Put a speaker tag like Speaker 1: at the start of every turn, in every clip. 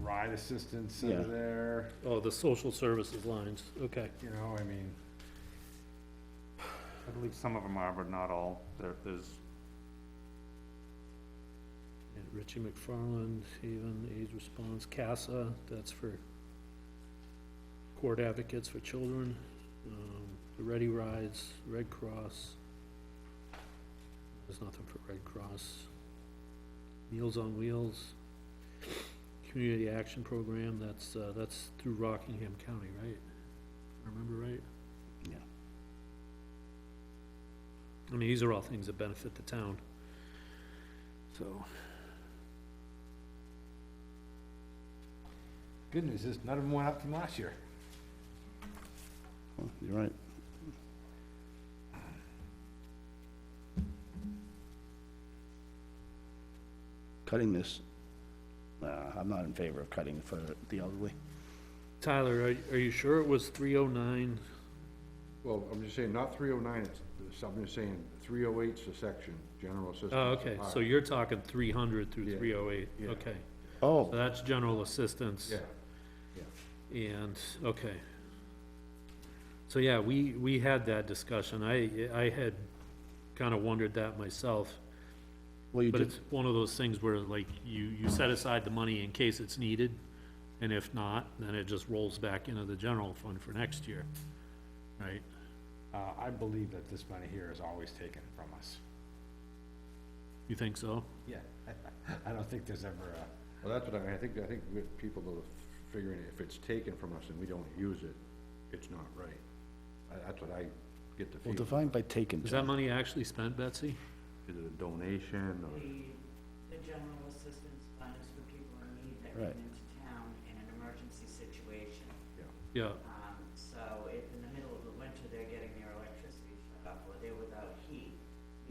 Speaker 1: ride assistance that are
Speaker 2: Yeah.
Speaker 1: there,
Speaker 3: Oh, the social services lines, okay.
Speaker 1: you know, I mean,
Speaker 4: I believe some of them are, but not all. There, there's,
Speaker 3: And Richie McFarland, Haven, AIDS Response, CASA, that's for court advocates for children, um, the Ready Rides, Red Cross. There's nothing for Red Cross. Meals on Wheels, Community Action Program, that's, uh, that's through Rockingham County, right? If I Remember right?
Speaker 2: Yeah.
Speaker 3: I mean, these are all things that benefit the town. So,
Speaker 1: good news is none of them went up from last year.
Speaker 2: Well, You're right. Cutting this, uh, I'm not in favor of cutting for the elderly.
Speaker 3: Tyler, are, are you sure it was three oh nine?
Speaker 5: Well, I'm just saying, not three oh nine, it's, it's- I'm just saying, three oh eight's a section, general assistance.
Speaker 3: Oh, okay, so you're talking three hundred through
Speaker 5: Yeah,
Speaker 3: three oh eight,
Speaker 5: yeah.
Speaker 3: okay.
Speaker 2: Oh,
Speaker 3: So that's general assistance.
Speaker 5: Yeah,
Speaker 3: And, okay. So, yeah, we, we had that discussion. I, I had kinda wondered that myself.
Speaker 2: well, you
Speaker 3: But
Speaker 2: did,
Speaker 3: it's one of those things where like you, you set aside the money in case it's needed. And if not, then it just rolls back into the general fund for next year, right?
Speaker 1: Uh, I believe that this money here is always taken from us.
Speaker 3: You think so?
Speaker 1: Yeah. I don't think there's ever a.
Speaker 5: well, that's what I, I think, I think with people that are figuring, if it's taken from us and we don't use it, it's not right. I, that's what I get the
Speaker 2: well,
Speaker 5: feeling,
Speaker 2: defined by taken.
Speaker 3: Is that money actually spent, Betsy?
Speaker 5: is it a donation or?
Speaker 3: Mm.
Speaker 6: The, the general assistance fund is for people in need that
Speaker 2: Right.
Speaker 6: come into town in an emergency situation.
Speaker 3: Yeah,
Speaker 6: Um, so if in the middle of the winter they're getting their electricity shut off or they're without heat,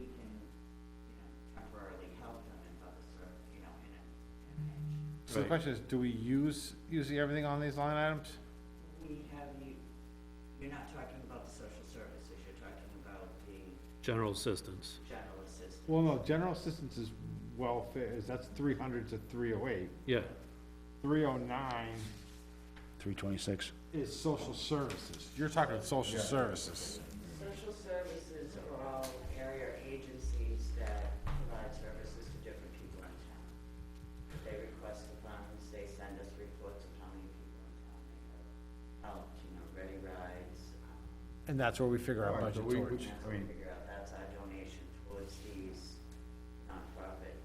Speaker 6: we can, you know, temporarily help them in other sort, you know, in a, in a pinch.
Speaker 1: So the
Speaker 3: Right.
Speaker 1: question is, do we use, usually everything on these line items?
Speaker 6: We have you, you're not talking about the social services, you're talking about the
Speaker 3: general assistance.
Speaker 6: general assistance.
Speaker 1: Well, no, general assistance is welfare, is, that's three hundred to three oh eight.
Speaker 3: Yeah,
Speaker 1: Three oh nine
Speaker 2: Three twenty-six.
Speaker 1: is social services. You're talking social services.
Speaker 6: Social services are all area agencies that provide services to different people in town. They request the funds, they send us reports of how many people in town they have helped, you know, ready rides. um,
Speaker 1: And that's where we figure our
Speaker 5: Alright, so
Speaker 1: budget
Speaker 5: we- we-
Speaker 1: towards.
Speaker 6: And
Speaker 5: I
Speaker 6: that's what we
Speaker 5: mean-
Speaker 6: figure out, that's our donation towards these nonprofit.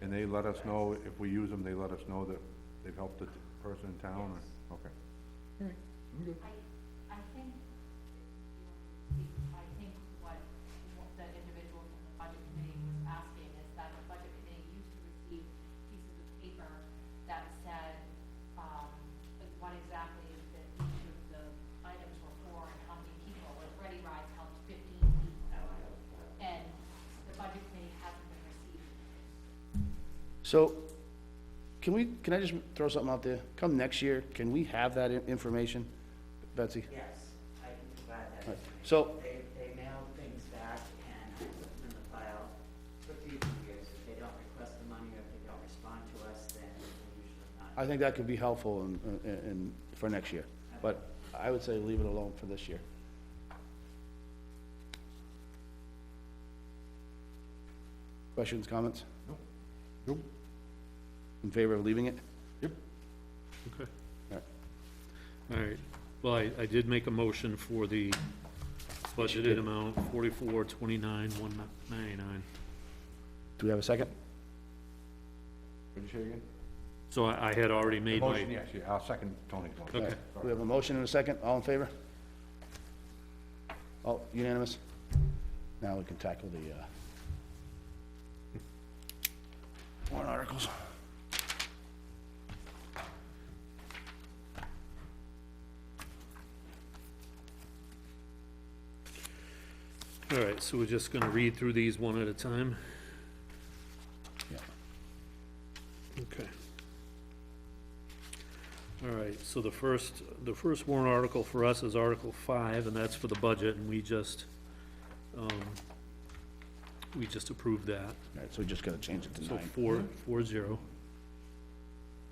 Speaker 5: And they let us know, if we use them, they let us know that they've helped the person in town, or, okay.
Speaker 7: I, I think, I think what the individual from the budget committee was asking is that the budget committee used to receive pieces of paper that said, um, like what exactly that each of the items were for and how many people, like Ready Rides helped fifteen people. And the budget committee hasn't been receiving.
Speaker 2: So, can we, can I just throw something out there? Come next year, can we have that in- information, Betsy?
Speaker 6: Yes, I can provide that.
Speaker 2: Right.
Speaker 6: information.
Speaker 2: So-
Speaker 6: They, they mail things back and I put them in the file for future years. If they don't request the money or if they don't respond to us, then we usually not.
Speaker 2: I think that could be helpful in, in- in, for next year, but I would say leave it alone for this year. Questions, comments?
Speaker 1: Nope.
Speaker 2: In favor of leaving it?
Speaker 3: okay.
Speaker 2: Alright.
Speaker 3: All right, well, I, I did make a motion for the budgeted amount, forty-four, twenty-nine, one ninety-nine.
Speaker 2: Do we have a second?
Speaker 5: What did you say again?
Speaker 3: So I, I had already made
Speaker 5: Motion,
Speaker 3: my,
Speaker 5: yes, yeah, I'll second Tony's motion.
Speaker 3: okay,
Speaker 2: We have a motion and a second, all in favor? All unanimous? Now we can tackle the, uh, warrant articles.
Speaker 3: all right, so we're just gonna read through these one at a time?
Speaker 2: Yeah.
Speaker 3: Okay. All right, so the first, the first warrant article for us is Article Five, and that's for the budget, and we just, um, we just approved that.
Speaker 2: All right, so we just gotta change it to
Speaker 3: So
Speaker 2: nine.
Speaker 3: four, four zero.